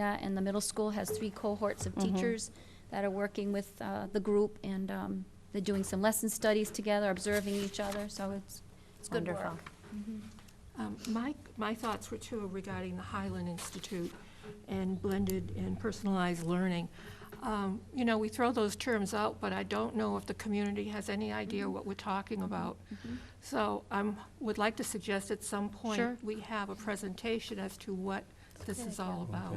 that, and the middle school has three cohorts of teachers that are working with uh, the group, and um, they're doing some lesson studies together, observing each other, so it's, it's good Wonderful. work. Um, My, my thoughts were too regarding the Highland Institute and blended and personalized learning. Um, You know, we throw those terms out, but I don't know if the community has any idea what we're talking about. Mm-hmm. So I would like to suggest at some Sure. point, we have a presentation as to what this is all about.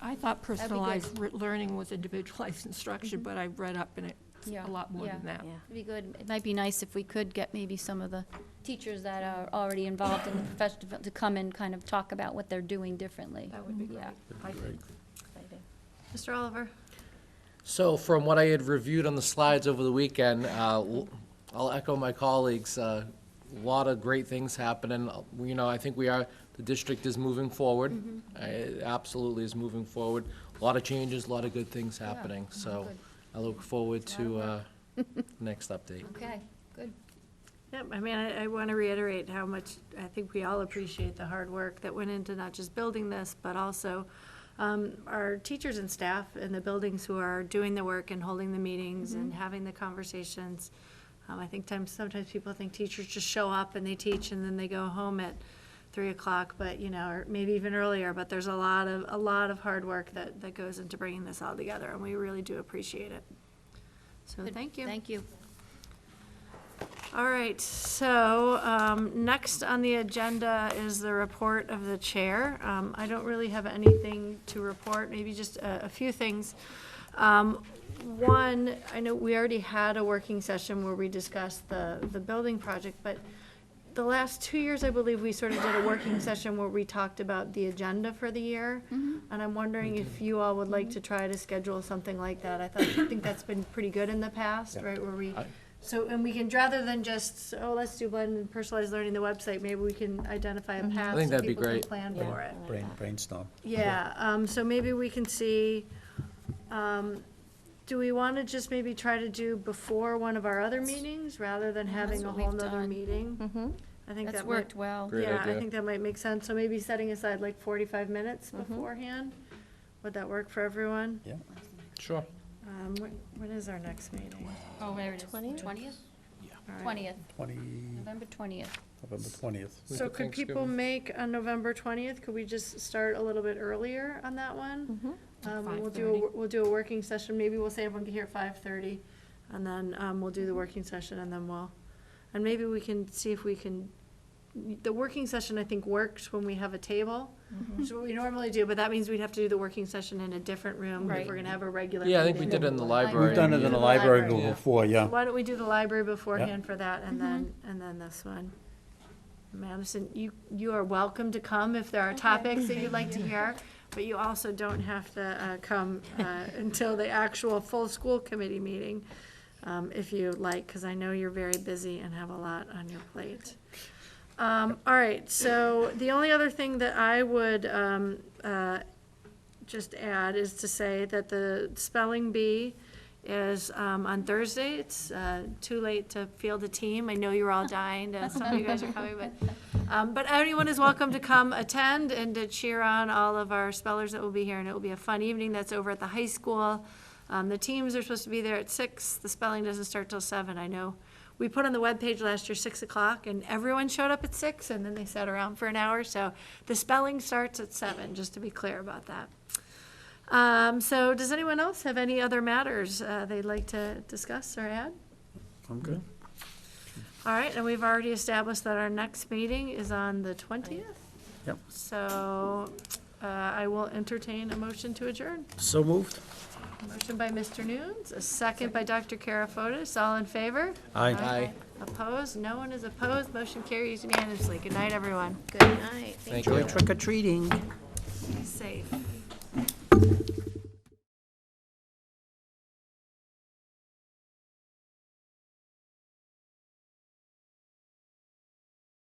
I thought personalized re- learning was individualized instruction, but I read up and it's Mm-hmm. Yeah, a lot more than yeah. that. It'd be good, it might be nice if we could get maybe some of the teachers that are already involved in the festival to come and kind of talk about what they're doing differently. That would be great, Yeah. I think. Mr. Oliver? So from what I had reviewed on the slides over the weekend, uh, l- I'll echo my colleagues, uh, a lot of great things happening. Uh, You know, I think we are, the district is moving forward. Uh, It absolutely is moving forward. A lot of changes, a lot of good things happening. So good. I look forward a to uh, next update. Okay, good. Yep, I mean, I, I want to reiterate how much I think we all appreciate the hard work that went into not just building this, but also um, our teachers and staff in the buildings who are doing the work and holding the meetings and having the conversations. Um, I think times, sometimes people think teachers just show up and they teach and then they go home at three o'clock, but, you know, or maybe even earlier, but there's a lot of, a lot of hard work that, that goes into bringing this all together, and we really do appreciate it. So, Good. thank you. Thank you. All right, so um, next on the agenda is the report of the chair. Um, I don't really have anything to report, maybe just a a few things. Um, One, I know we already had a working session where we discussed the, the building project, but the last two years, I believe, we sort of did a working session where we talked about the agenda for the year. And I'm wondering if you all would like to try to schedule something like that. I thought, I think that's been pretty good in the past, right, where we, I- so, and we can, rather than just, oh, let's do blended and personalized learning, the website, maybe we can identify a path. think so that'd be people can great. Plan for it. Brain, brainstorm. Yeah, um, so maybe we can see, um, do we wanna just maybe try to do before one of our other meetings, rather than having a what whole we've nother done. Mm-hmm. meeting? I think That's that might, worked well. Great yeah, I idea. think that might make sense, so maybe setting aside like forty-five minutes Mm-hmm. beforehand, would that work for everyone? Yeah. Sure. Um, when, when is our next meeting? Oh, there it is. Twentieth? All right. Twentieth, Twenty, November twentieth. November twentieth. Week So of could people Thanksgiving. make on November twentieth, could we just start a little bit earlier on that one? Um, we'll do, a 5:30. wor- we'll do a working session, maybe we'll say everyone can hear at five thirty, and then, um, we'll do the working session, and then we'll, and maybe we can see if we can, the working session, I think, works when we have a table, which is what we normally do, but that means we'd have to do the working session in a different room, if we're Right. gonna have a regular meeting. Yeah, I think we did it in the library. We've done it in the library Library. before, yeah. Why don't we do the library beforehand for that, and then, and then this one? Madison, you, you are welcome to come if there are topics that you'd like to hear, but you also don't have to uh, come uh, until the actual full school committee meeting, um, if you like, because I know you're very busy and have a lot on your plate. Um, All right, so the only other thing that I would um, uh, just add is to say that the spelling bee is um, on Thursday. It's uh, too late to field a team. I know you're all dying, to- some of you guys are coming, but, um, but everyone is welcome to come attend and to cheer on all of our spellers that will be here, and it will be a fun evening. That's over at the high school. Um, The teams are supposed to be there at six. The spelling doesn't start till seven. I know we put on the webpage last year, six o'clock, and everyone showed up at six, and then they sat around for an hour. So the spelling starts at seven, just to be clear about that. Um, so does anyone else have any other matters, uh, they'd like to discuss or add? I'm good. All right, and we've already established that our next meeting is on the twentieth. Yep. So, uh, I will entertain a motion to adjourn. So moved? Motion by Mr. Nunes, a second by Dr. Karafotis, all in favor? Aye. Aye. Opposed? No one is opposed. Motion carries unanimously. Good night, everyone. Thank you. Trick or treating. Be safe.